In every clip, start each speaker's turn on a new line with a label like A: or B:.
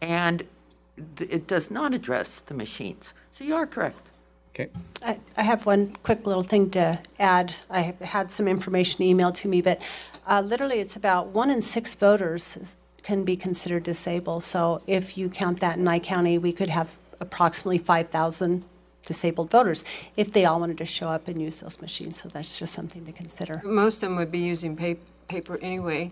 A: and th- it does not address the machines. So you are correct.
B: Okay.
C: I I have one quick little thing to add. I have had some information emailed to me, but uh, literally, it's about one in six voters is- can be considered disabled. So if you count that in Nye County, we could have approximately 5,000 disabled voters if they all wanted to show up and use those machines. So that's just something to consider.
D: Most of them would be using pa- paper anyway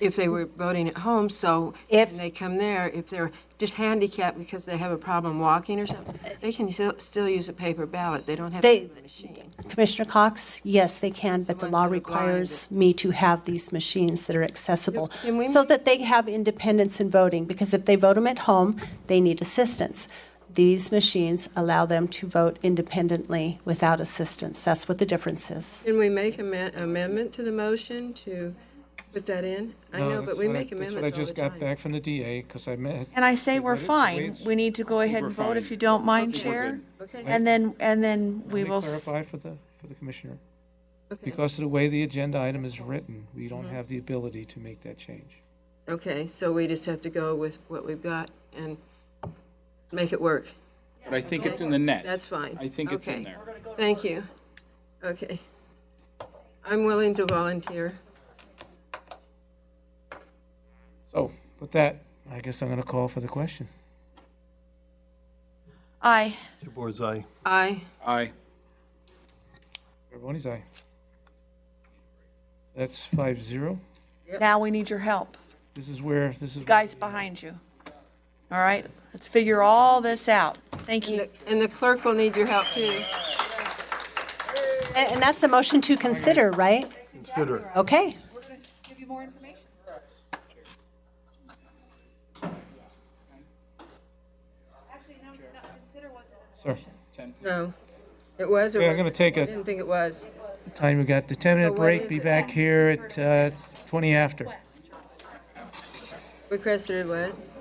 D: if they were voting at home, so
C: If-
D: when they come there, if they're just handicapped because they have a problem walking or something, they can still, still use a paper ballot. They don't have to
C: They-
D: use a machine.
C: Commissioner Cox, yes, they can, but the
D: Someone's
C: law
D: gonna blind
C: requires me to have these machines that are accessible
D: Can we
C: so
D: make-
C: that they have independence in voting, because if they vote them at home, they need assistance. These machines allow them to vote independently without assistance. That's what the difference is.
D: Can we make an amendment to the motion to put that in? I know, but
B: that's
D: we
B: what
D: make
B: That's what I
D: amendments all the
B: just got
D: time.
B: back from the DA, because I met.
E: And I say we're
B: Let it-
E: fine.
B: please.
E: We need to go ahead and vote if you don't mind, Chair.
D: Okay.
E: And then, and then we
B: Let me
E: will, s-
B: clarify for the, for the commissioner.
D: Okay.
B: Because of the way the agenda item is written, we don't
D: Mm-hmm.
B: have the ability to make that change.
D: Okay, so we just have to go with what we've got and make it work.
F: But I think it's in the net.
D: That's fine.
F: I think it's in
D: Okay.
F: there.
D: Thank you. Okay. I'm willing to volunteer.
B: So with that, I guess I'm going to call for the question.
E: aye.
G: DeBoer's aye.
D: Aye.
F: Aye.
B: Everybody's aye. That's five zero.
E: Now we need your help.
B: This is where, this is.
E: Guys behind you. All right, let's figure all this out. Thank you.
D: And the clerk will need your help too.
C: And and that's a motion to consider, right?
G: Consider it.
C: Okay.
B: Sir,
D: No. It was or
B: Okay, I'm going to
D: wasn't?
B: take
D: I
B: a
D: didn't think it was.
B: time, we got the 10-minute
D: what
B: break,
D: is
B: be
D: it?
B: back here at uh, 20 after.
D: Requested what?